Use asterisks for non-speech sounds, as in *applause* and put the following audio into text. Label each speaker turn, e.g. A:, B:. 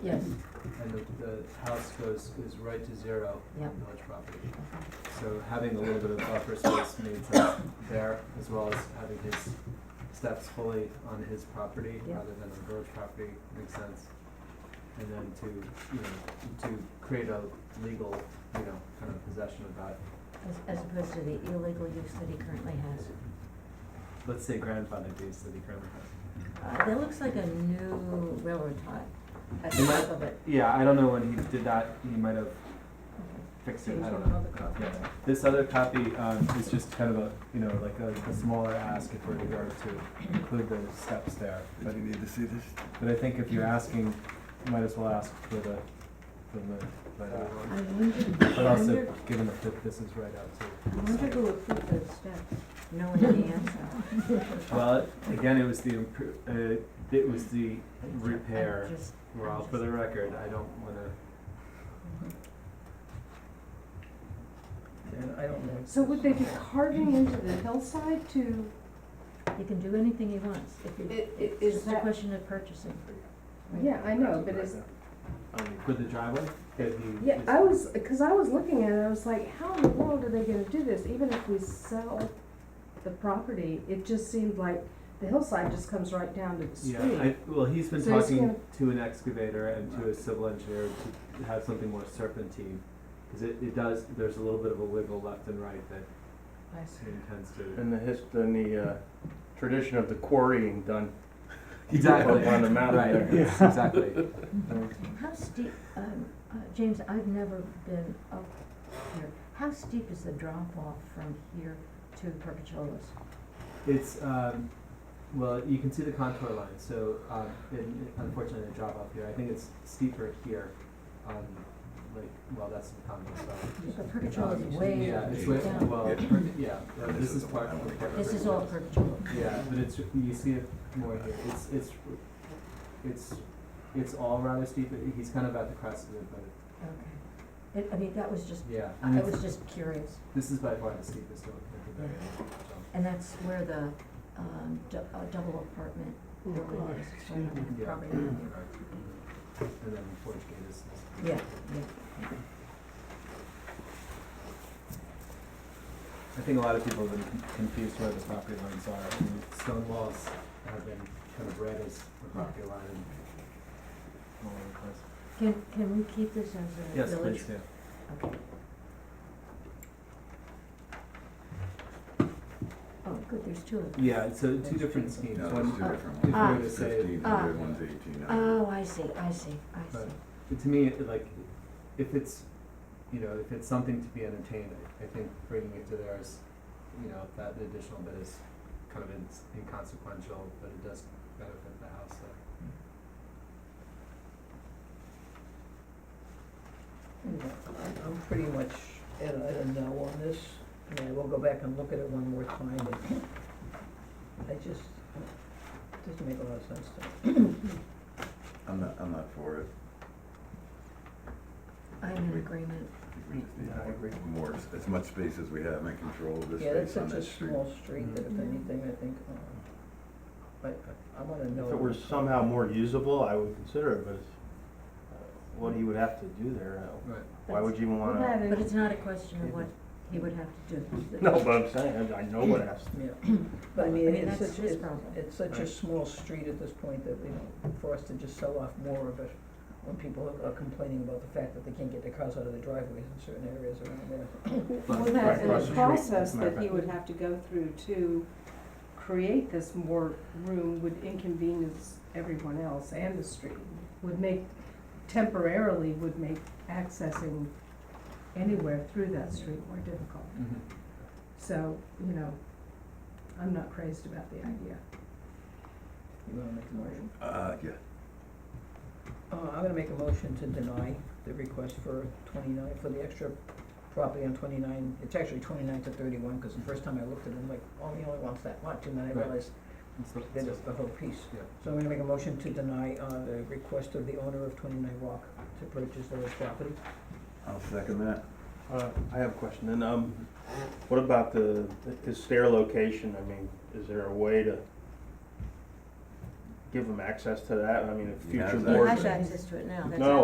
A: Yes,
B: and the, the house goes, is right to zero
A: Yep.
B: on village property. So having a little bit of buffer space made sense there, as well as having his steps fully on his property
A: Yep.
B: rather than on village property makes sense. And then to, you know, to create a legal, you know, kind of possession of that,
A: as, as opposed to the illegal use that he currently has.
B: let's say grandfathered use that he currently has.
A: Uh, that looks like a new railroad tie at the
B: Am I-
A: top of it.
B: Yeah, I don't know when he did that, he might have
A: Okay.
B: fixed
A: Here's
B: it, I don't know.
A: another copy.
B: Yeah. This other copy, um, is just kind of a, you know, like a, a smaller ask if we're to go to include the steps there.
C: Did
B: But,
C: you need to see this?
B: but I think if you're asking, you might as well ask for the, for the, but, uh,
A: I wondered,
B: but also, given the fit, this is right out
A: I wonder
B: too.
A: who approved those steps, knowing the answer.
B: Well, again, it was the, impro- uh, it was the
A: I'm
B: repair,
A: just-
B: we're all for the record, I don't wanna. And I don't know.
D: So would they be carving into the hillside to,
A: He can do anything he wants, if
D: i-
A: you,
D: i-
A: it's
D: is
A: just a
D: that,
A: question of purchasing.
D: yeah, I know, but is,
B: For the driveway? that he-
D: yeah, I was, cause I was looking at it, I was like, how in the world are they gonna do this, even if we sell the property, it just seemed like the hillside just comes right down to the street.
B: Yeah, I, well, he's been
D: So he's
B: talking
D: gonna-
B: to an excavator and to a civil engineer to have something more serpentine. Cause it, it does, there's a little bit of a wiggle left and right that
A: I see.
B: he intends to.
E: And the his, and the, uh, tradition of the quarrying done
B: Exactly.
E: up on the
B: Right,
E: mountain there. *laughs*
B: yes, exactly.
F: Mhm.
A: How steep, um, uh, James, I've never been up here, how steep is the drop off from here to Perpetua's?
B: It's, um, well, you can see the contour line, so, um, it, it- unfortunately, I drop off here, I think it's steeper here, um, like, well, that's the contour side.
A: But Perpetua's is way
B: Yeah,
A: down.
B: it's way, well, per- yeah, uh, this is part of the.
A: This is all perpetual.
B: Yeah, but it's, you see it more here, it's, it's, it's, it's all rather steep, but he's kind of at the crest of it, but,
A: Okay. It, I mean, that was just,
B: yeah, and
A: I
B: it's-
A: was just curious,
B: this is by far the steepest hill at the very end, so,
A: and that's where the, um, du- uh, double apartment building is, so I don't have
B: yeah.
A: property value.
B: And then Forge Gate is.
A: Yeah, yeah.
B: I think a lot of people have been confused where the property lines are, I mean, stone walls have been kind of read as the property line and all over the place.
A: Can, can we keep this as
B: Yes,
A: a village?
B: please, yeah.
A: Okay. Oh, good, there's two of them.
B: Yeah, it's uh, two different schemes,
C: No,
B: one,
C: it's two
A: uh,
C: different
B: if you
C: ones.
B: were
A: Ah.
B: to
C: One's
B: say,
C: Fifteen
A: ah.
C: hundred, one's eighteen hundred.
A: Oh, I see, I see, I
B: Right.
A: see.
B: But to me, it, like, if it's, you know, if it's something to be entertained, I, I think bringing it to there is, you know, that additional bit is kind of ins- inconsequential, but it does benefit the house, so.
F: I'm- I'm pretty much at a no on this. I mean, we'll go back and look at it one more time, but I just, it doesn't make a lot of sense to me.
C: I'm not, I'm not for it.
A: I'm in agreement.
C: I think we just need
B: Yeah, I
C: more-
B: agree.
C: More, s- as much space as we have and control of this
F: Yeah, that's
C: space on
F: such a
C: that street.
F: small street
B: Mm-hmm.
F: that if
A: Mhm.
F: anything, I think, uh, I, I wanna know.
E: If it were somehow more usable, I would consider it, but it's, uh, what he would have to do there, uh,
B: Right.
E: why would you even
D: Well,
E: wanna?
D: that is-
A: But it's not a question of what he would have to do.
E: No, but I'm saying, I- I know what it has to
F: Yeah, but I
A: I
F: mean,
A: mean,
F: it's
A: that's
F: such,
A: his
F: it's,
A: problem.
F: it's such a
E: Right.
F: small street at this point that, you know, for us to just sell off more of it, when people are complaining about the fact that they can't get their cars out of their driveways in certain areas around there.
D: Well, that's
E: Right across
D: the
E: the street.
D: process
E: Matter
D: that
E: of
D: he
E: fact.
D: would have to go through to create this more room would inconvenience everyone else and the street. Would make, temporarily would make accessing anywhere through that street more difficult.
B: Mm-hmm.
D: So, you know, I'm not crazed about the idea.
F: You wanna make a motion?
C: Uh, yeah,
F: Uh, I'm gonna make a motion to deny the request for twenty-nine, for the extra property on twenty-nine, it's actually twenty-nine to thirty-one, cause the first time I looked at it, I'm like, oh, he only wants that much, and then I
B: Right.
F: realized
B: So-
F: that
B: so-
F: it's the whole piece.
B: Yeah.
F: So I'm gonna make a motion to deny, uh, the request of the owner of twenty-nine Rock to purchase the property.
C: I'll second that.
E: Uh, I have a question, and, um, what about the, his stair location, I mean, is there a way to give them access to that, I mean, if
C: He has
E: future
C: that.
E: boards.
C: Has
A: access to it now, that's
E: No,